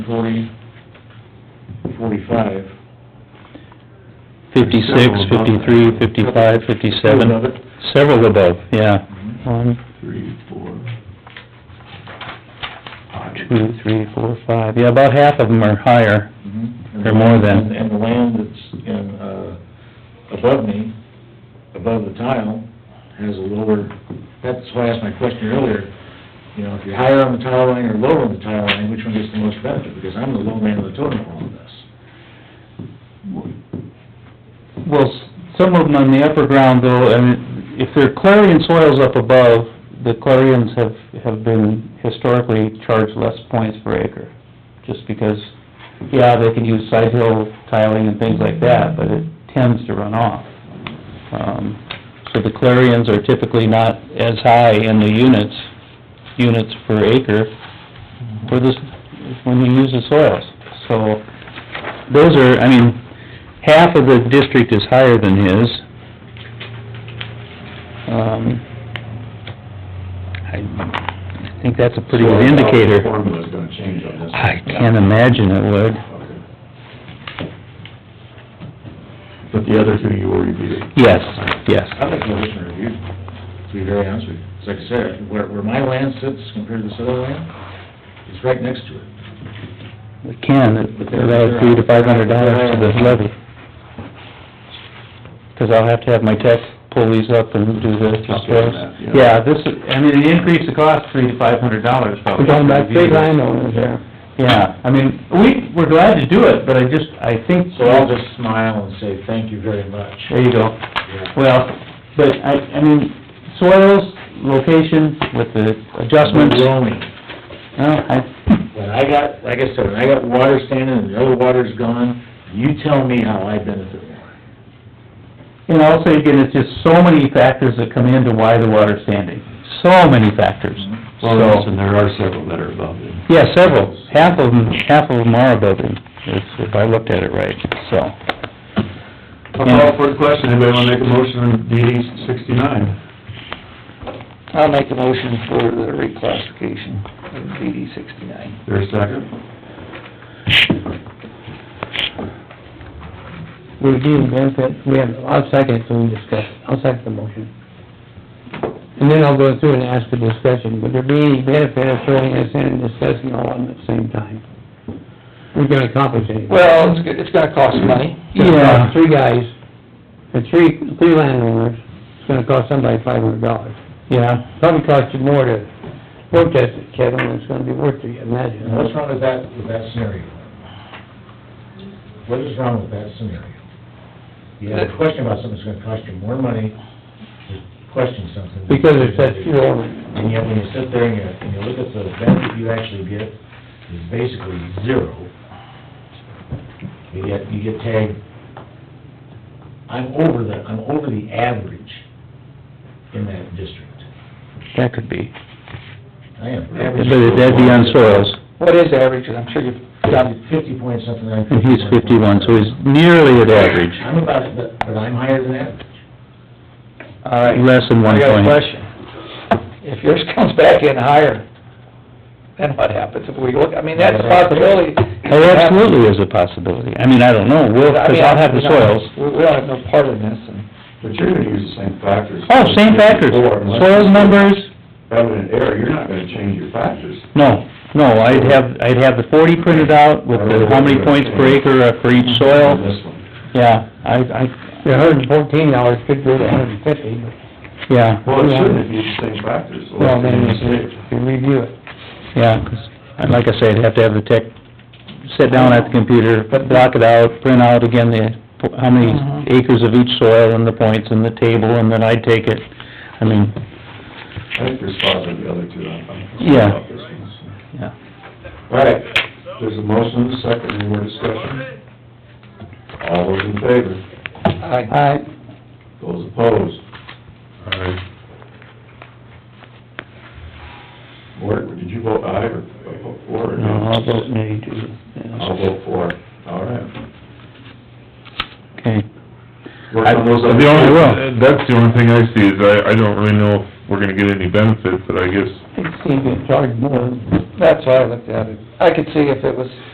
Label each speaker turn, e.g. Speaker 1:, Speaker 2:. Speaker 1: forty, forty-five.
Speaker 2: Fifty-six,
Speaker 1: Several above.
Speaker 2: fifty-three, fifty-five,
Speaker 1: Several above
Speaker 2: fifty-seven.
Speaker 1: it.
Speaker 2: Several above, yeah.
Speaker 1: Mhm.
Speaker 2: One,
Speaker 1: Three, four. five.
Speaker 2: two, three, four, five, yeah, about half of them are higher.
Speaker 3: Mm-hmm.
Speaker 1: Mhm.
Speaker 2: Or more than.
Speaker 1: And- And the land that's in, uh, above me, above the tile, has a lower, that's why I asked my question earlier. You know, if you're higher on the tile line or lower on the tile line, which one gets the most benefit? Because I'm the low man of the totem pole on this.
Speaker 2: Well, s- some of them on the upper ground though, and if they're clarion soils up above, the clarions have, have been historically charged less points per acre. Just because, yeah, they can use side hill tiling and things like that, but it tends to run off. Um, so the clarions are typically not as high in the units, units per acre for this, when you use the soils. So, those are, I mean, half of the district is higher than his. Um, I think that's a pretty
Speaker 3: uh,
Speaker 2: good indicator.
Speaker 3: Formula's gonna change on this.
Speaker 2: I can't imagine it would.
Speaker 3: Okay. But the other two you already beat.
Speaker 2: Yes, yes.
Speaker 1: I'd like to listen to review, to be very honest with you. It's like I said, where, where my land sits compared to this other land, it's right next to it.
Speaker 2: It can, it'll add three to five hundred dollars to this levy. Because I'll have to have my tech pull these up and do this as
Speaker 3: Okay,
Speaker 2: well.
Speaker 3: that, yeah.
Speaker 2: Yeah, this, is- I mean, it increased the cost three to five hundred dollars probably.
Speaker 4: We're talking about big landowners there.
Speaker 2: Yeah, I mean, we, we're glad to do it, but I just, I think,
Speaker 1: So I'll just smile and say, thank you very much.
Speaker 2: there you go.
Speaker 1: Yeah.
Speaker 2: Well, but I, I mean, soils, location with the adjustments.
Speaker 1: Wyoming.
Speaker 2: Well, I,
Speaker 1: When I got, like I said, when I got water standing and the other water's gone, you tell me how I benefit more.
Speaker 2: And also, again, it's just so many factors that come into why the water's standing, so many factors.
Speaker 3: Well, yes,
Speaker 2: So,
Speaker 3: and there are several that are above it.
Speaker 2: yeah, several, half of them, half of them are above him, if, if I looked at it right, so.
Speaker 3: I'll call for the question, anybody wanna make a motion on DD sixty-nine?
Speaker 4: I'll make a motion for the reclassification of DD sixty-nine.
Speaker 3: There a second?
Speaker 4: We do benefit, we have, I'll second it, so we discuss, it. I'll second the motion. And then I'll go through and ask for discussion, would there be any benefit of throwing this in and discussing all of them at the same time? We're gonna accomplish anything.
Speaker 5: Well, it's, go- it's gonna cost money.
Speaker 4: Yeah, three guys, the three, three landowners, it's gonna cost somebody five hundred dollars.
Speaker 2: Yeah,
Speaker 4: Probably cost you more to protest it, Kevin, than it's gonna be worth to you, imagine.
Speaker 1: And what's wrong with that, with that scenario? What is wrong with that scenario? You have a question about something that's gonna cost you more money, to question something.
Speaker 4: Because it's that few elements.
Speaker 1: And yet, when you sit there and you, and you look at the benefit you actually get, is basically zero. You get, you get tagged, I'm over the, I'm over the average in that district.
Speaker 2: that could be,
Speaker 1: I am
Speaker 2: but
Speaker 1: average.
Speaker 2: that'd be on soils,
Speaker 5: What is average, I'm sure you've done,
Speaker 1: Fifty point something, I'm
Speaker 2: and
Speaker 1: fifty.
Speaker 2: he's fifty-one, so he's nearly at average,
Speaker 1: I'm about, it, but, but I'm higher than average.
Speaker 5: all right.
Speaker 2: less than one
Speaker 5: I got a
Speaker 2: point.
Speaker 5: question. If yours comes back in higher, then what happens if we look, I mean, that's a possibility.
Speaker 2: That Oh, absolutely is a possibility, I mean, I don't know, we'll,
Speaker 5: I
Speaker 2: because
Speaker 5: mean,
Speaker 2: I'll have the
Speaker 5: we don't-
Speaker 2: soils.
Speaker 5: We, we don't have no part in this, and
Speaker 3: But you're gonna use the same factors.
Speaker 2: Oh, same factors,
Speaker 3: Before, unless-
Speaker 2: soils numbers,
Speaker 3: Having an error, you're not gonna change your factors.
Speaker 2: No, no, I'd have, I'd have the forty printed out with the, how many points per acre uh, for each
Speaker 3: On
Speaker 2: soil.
Speaker 3: This one.
Speaker 2: Yeah, I, I,
Speaker 4: The hundred and fourteen dollars could go to a hundred and fifty, but,
Speaker 2: yeah,
Speaker 3: Well, it shouldn't if you use the same factors.
Speaker 4: well, then you should, you review it.
Speaker 2: yeah, 'cause, and like I said, I'd have to have the tech sit down at the computer, block it out, print out again the, po- how many
Speaker 5: Mhm.
Speaker 2: acres of each soil and the points and the table, and then I'd take it. I mean,
Speaker 3: I think there's five of the other two on. on-
Speaker 2: Yeah.
Speaker 3: on this one, so.
Speaker 2: yeah,
Speaker 3: All right, there's a motion, and a second, any more discussion? All those in favor?
Speaker 5: I,
Speaker 4: All right,
Speaker 3: Those opposed? Aye. Mort, did you vote aye or vote for or
Speaker 4: no,
Speaker 3: no?
Speaker 4: I'll vote nay too.
Speaker 3: I'll vote for, all right.
Speaker 2: okay.
Speaker 3: Work on those other-
Speaker 6: The only,
Speaker 2: will.
Speaker 6: that's the only thing I see is I, I don't really know if we're gonna get any benefit, but I guess
Speaker 4: It seems to charge more.
Speaker 5: that's why I looked at it. I could see if it was